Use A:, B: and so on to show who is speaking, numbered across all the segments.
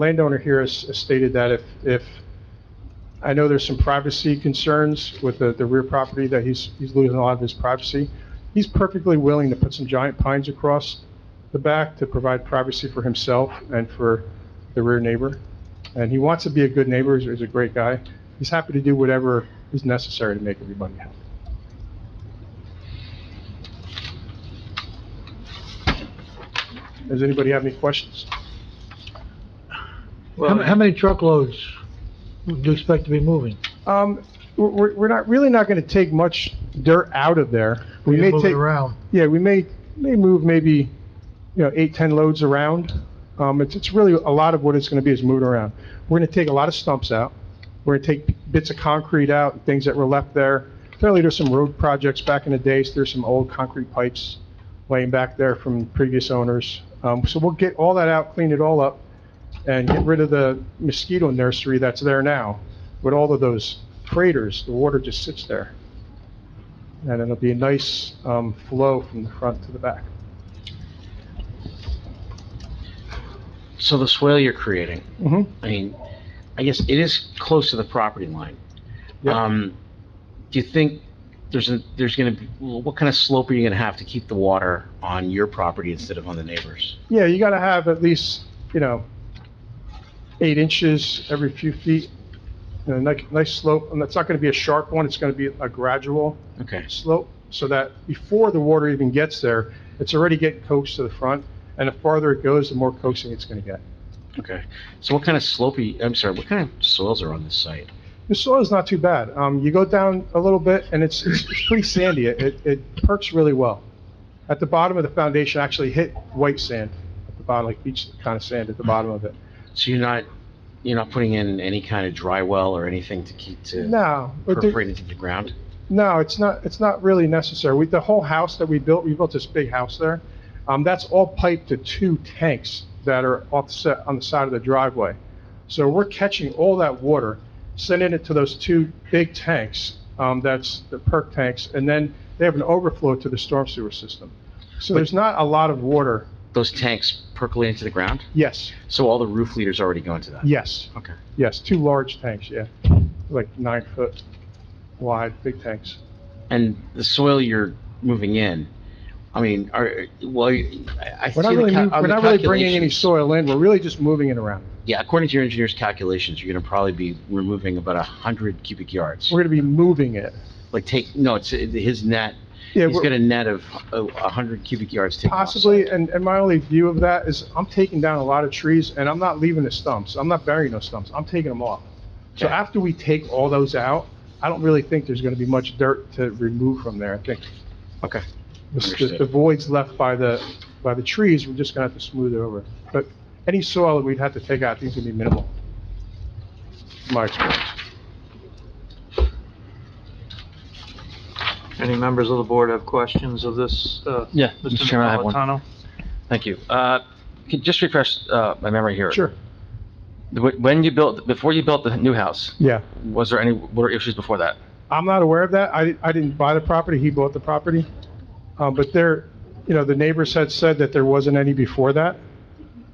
A: landowner here has has stated that if, if, I know there's some privacy concerns with the, the rear property, that he's, he's losing a lot of his privacy. He's perfectly willing to put some giant pines across the back to provide privacy for himself and for the rear neighbor. And he wants to be a good neighbor, he's, he's a great guy. He's happy to do whatever is necessary to make everybody happy. Does anybody have any questions?
B: How ma- how many truckloads do you expect to be moving?
A: Um, we're- we're, we're not, really not gonna take much dirt out of there. We
B: You
A: may
B: move it
A: take,
B: around.
A: yeah, we may, may move maybe, you know, eight, 10 loads around. Um, it's, it's really, a lot of what it's gonna be is moved around. We're gonna take a lot of stumps out. We're gonna take bits of concrete out, things that were left there. Apparently, there's some road projects back in the days, there's some old concrete pipes laying back there from previous owners. Um, so we'll get all that out, clean it all up, and get rid of the mosquito nursery that's there now with all of those craters, the water just sits there. And it'll be a nice um, flow from the front to the back.
C: So the swale you're creating,
A: hmm
C: I mean, I guess it is close to the property line.
A: Yep.
C: Um, do you think there's a, there's gonna be, well, what kind of slope are you gonna have to keep the water on your property instead of on the neighbors?
A: Yeah, you gotta have at least, you know, eight inches every few feet, and a nice, nice slope, and that's not gonna be a sharp one, it's gonna be a gradual
C: Okay,
A: slope, so that before the water even gets there, it's already getting coaxed to the front, and the farther it goes, the more coaxing it's gonna get.
C: okay. So what kind of slope, are you- I'm sorry, what kind of soils are on this site?
A: The soil's not too bad. Um, you go down a little bit and it's, it's it's pretty sandy. It, it- it perks really well. At the bottom of the foundation, I actually hit white sand at the bottom, like beach kind of sand at the bottom of it.
C: So you're not, you're not putting in any kind of dry well or anything to keep to
A: No, but there-
C: perforate into the ground?
A: no, it's not, it's not really necessary. We, the whole house that we built, we built this big house there. Um, that's all piped to two tanks that are offset on the side of the driveway. So we're catching all that water, sending it to those two big tanks, um, that's the perk tanks, and then they have an overflow to the storm sewer system. So there's not a lot of water.
C: Those tanks percolate into the ground?
A: Yes,
C: So all the roof leaders already go into that?
A: yes,
C: Okay.
A: yes, two large tanks, yeah. Like nine foot wide, big tanks.
C: and the soil you're moving in, I mean, are, well, I- I see
A: We're not
C: the
A: really,
C: cal-
A: mov-
C: on
A: we're
C: the
A: not really bringing any
C: calculations-
A: soil in, we're really just moving it around.
C: Yeah, according to your engineer's calculations, you're gonna probably be removing about a hundred cubic yards.
A: We're gonna be moving it.
C: Like take, no, it's, it- his net,
A: Yeah,
C: he's
A: we're-
C: got a net of a a hundred cubic yards taken off.
A: possibly, and, and my only view of that is I'm taking down a lot of trees and I'm not leaving the stumps. I'm not burying those stumps. I'm taking them off. So
C: Okay.
A: after we take all those out, I don't really think there's gonna be much dirt to remove from there. I think
C: Okay,
A: the- the,
C: Understood.
A: the voids left by the, by the trees, we're just gonna have to smooth it over. But any soil that we'd have to take out, I think is gonna be minimal. from My experience.
D: Any members of the board have questions of this? uh,
E: Yeah, Mr. Chairman, I have one.
D: Napolitano?
E: Thank you. Uh, can- Just refresh uh, my memory here.
A: Sure,
E: Wh- When you built, before you built the new house,
A: yeah.
E: was there any water issues before that?
A: I'm not aware of that. I, I didn't buy the property, he bought the property. Um, but there, you know, the neighbors had said that there wasn't any before that.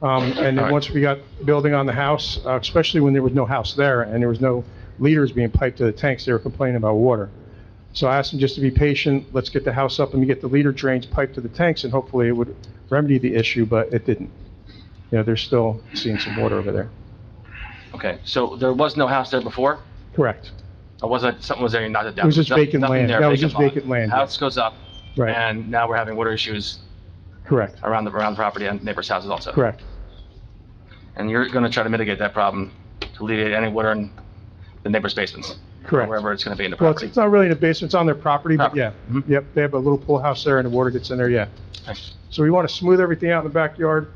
A: Um, and then
E: Alright.
A: once we got building on the house, uh, especially when there was no house there and there was no leaders being piped to the tanks, they were complaining about water. So I asked them just to be patient, let's get the house up and get the leader drains piped to the tanks and hopefully it would remedy the issue, but it didn't. You know, they're still seeing some water over there.
E: Okay, so there was no house there before?
A: Correct,
E: Or was that, something was there and not that?
A: It was just vacant land. That was just vacant land, yeah.
E: House goes up,
A: right,
E: and now we're having water issues
A: correct,
E: around the, around the property and neighbors' houses also.
A: correct.
E: And you're going to try to mitigate that problem to alleviate any water in the neighbors' basements?
A: Correct.
E: Wherever it's going to be in the
A: Well, it's-
E: property.
A: it's not really in the basement, it's on their property, but
E: Property.
A: yeah.
E: Mhm.
A: Yep, they have a little pool house there and the water gets in there, yeah.
E: Okay.
A: So we want to smooth everything out in the backyard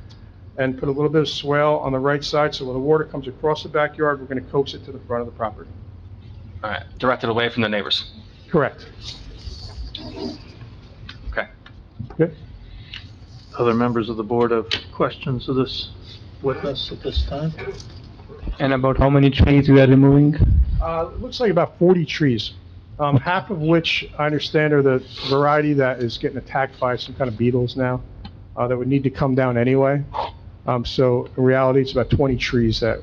A: and put a little bit of swale on the right side, so when the water comes across the backyard, we're going to coax it to the front of the property.
E: All right, directed away from the neighbors.
A: Correct.
E: Okay.
A: Good.
D: Other members of the board have questions of this witness at this time?
F: And about how many trees we are removing?
A: Uh, it looks like about 40 trees, um, half of which I understand are the variety that is getting attacked by some kind of beetles now, uh, that would need to come down anyway. Um, So in reality, it's about 20 trees that